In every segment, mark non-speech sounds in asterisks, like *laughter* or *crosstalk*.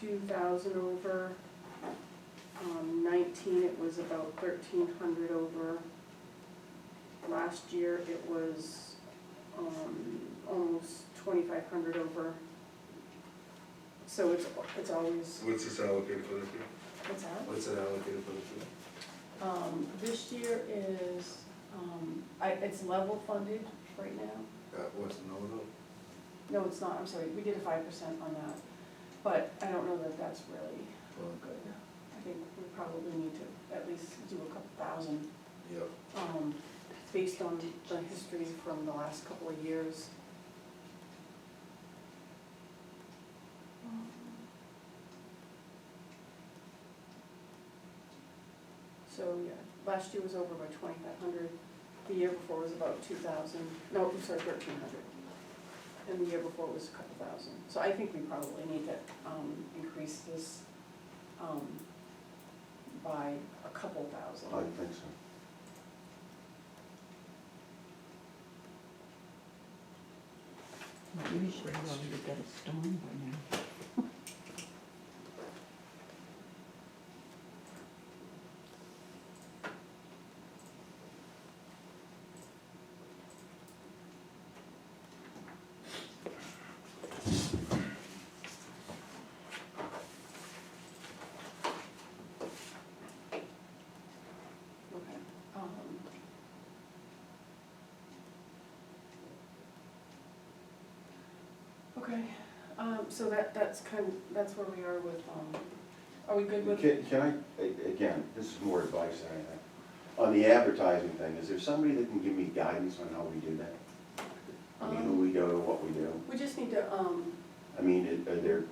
two thousand over. Um, nineteen, it was about thirteen hundred over. Last year, it was, um, almost twenty-five hundred over. So it's, it's always, What's this allocated for the fee? what's that? What's it allocated for the fee? Um, this year is, um, I, it's level funded right now. Uh, what's the nominal? No, it's not, I'm sorry, we did a five percent on that, but I don't know that that's really good. I think we probably need to at least do a couple thousand, Yep. um, based on the history from the last couple of years. So, yeah, last year was over by twenty-five hundred, the year before was about two thousand, no, I'm sorry, thirteen hundred. And the year before was a couple thousand, so I think we probably need to, um, increase this, um, by a couple thousand. I think so. Usually we already got a storm by Okay, um. Okay, um, so that, that's kind, that's where we are with, um, are we good with? Can, can I, a- again, this is more advice than anything. On the advertising thing, is there somebody that can give me guidance on how we do that? I mean, who Um, we go to, what we do? We just need to, um, I mean, are- are there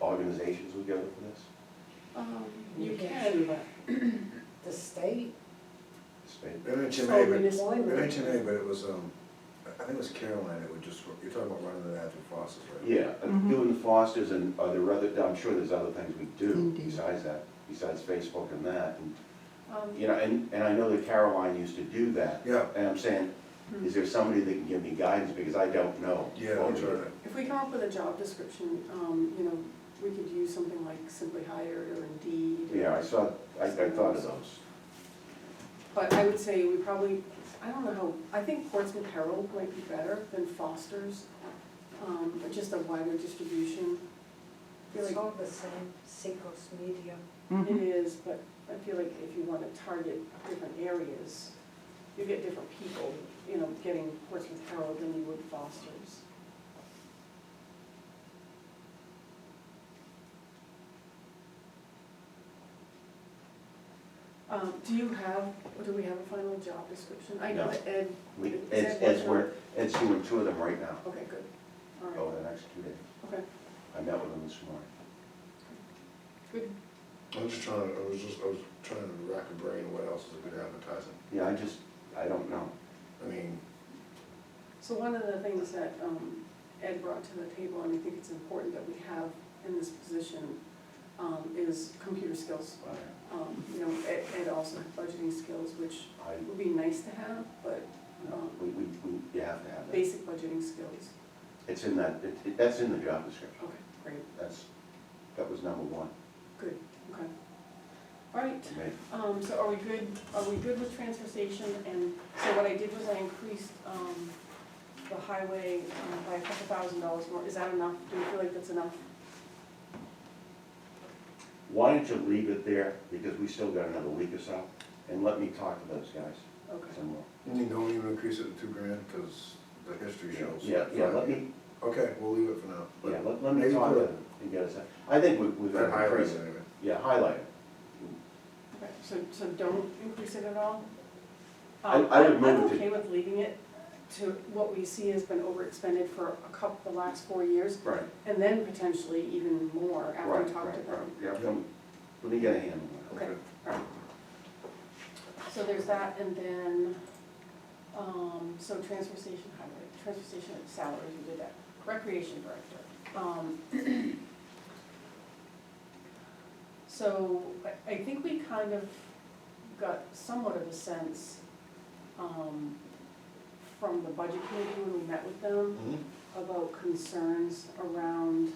organizations we go to for this? um, You you can can, do that. The state, Spain? They mentioned Oh, A, municipal. but, they mentioned A, but it was, um, I think it was Caroline, it would just, you're talking about running the ad through Foster's, right? Yeah, uh, Mhm. doing the Fosters and are there other, I'm sure there's other things we do Indeed. besides that, besides Facebook and that. And, um, You know, and, and I know that Caroline used to do that. Yeah, And I'm saying, is there somebody that can give me guidance because I don't know? yeah, what I'm we trying do. to, if we come up with a job description, um, you know, we could use something like Simply Hired or Indeed. Yeah, I saw, I, I thought of those. But I would say we probably, I don't know how, I think Portsmouth Herald might be better than Foster's, um, but just a wider distribution. I it's feel all the same, Seacoast Media. now. like it is, but I feel like if you wanna target different areas, you get different people, you know, getting Portsmouth Herald than you would Foster's. Um, do you have, do we have a final job description? I know No. that Ed We, Is that as, as what- we're, as doing two of them right now, Okay, good, all over right, the next two days. okay, I met with them this morning. good, I'm just trying, to- I was just, I was trying to rack a brain, what else is a good advertising? Yeah, I just, I don't know. I mean, so one of the things that um, Ed brought to the table, and I think it's important that we have in this position, um, is computer skills. I, Um, You know, Ed Ed also had budgeting skills, which I, would be nice to have, but um, we, we, we, you have to have that. basic budgeting skills, It's in that, it, it- that's in the job description. okay, great, That's, that was number one good, okay. All right, to me. Um, so are we good, are we good with transfer station? And so what I did was I increased, um, the highway um, by a couple thousand dollars more. Is that enough? Do you feel like that's enough? Why don't you leave it there, because we still got another week or so, and let me talk to those guys Okay. some more. you don't even increase it to two grand, cause the history shows. Yeah, yeah, let me, Okay, we'll leave it for now, but. yeah, let, let me Maybe talk to put them and get us, I think we, we've got That to highlights increase it it. anyway. Yeah, highlight it. Okay, so, so don't increase it at all? I- Um, I would I'm- move I'm to- okay with leaving it to what we see has been overexpended for a couple, the last four years, Right. and then potentially even more after we Right, talk to right, right, them. yeah, let me, let me get a handle on it. Okay, all right. So there's that, and then, um, so transfer station highway, transfer station salaries, we did that, recreation director. Um, *clears throat* So I, I think we kind of got somewhat of a sense, um, from the budget committee when we met with them Mhm. about concerns around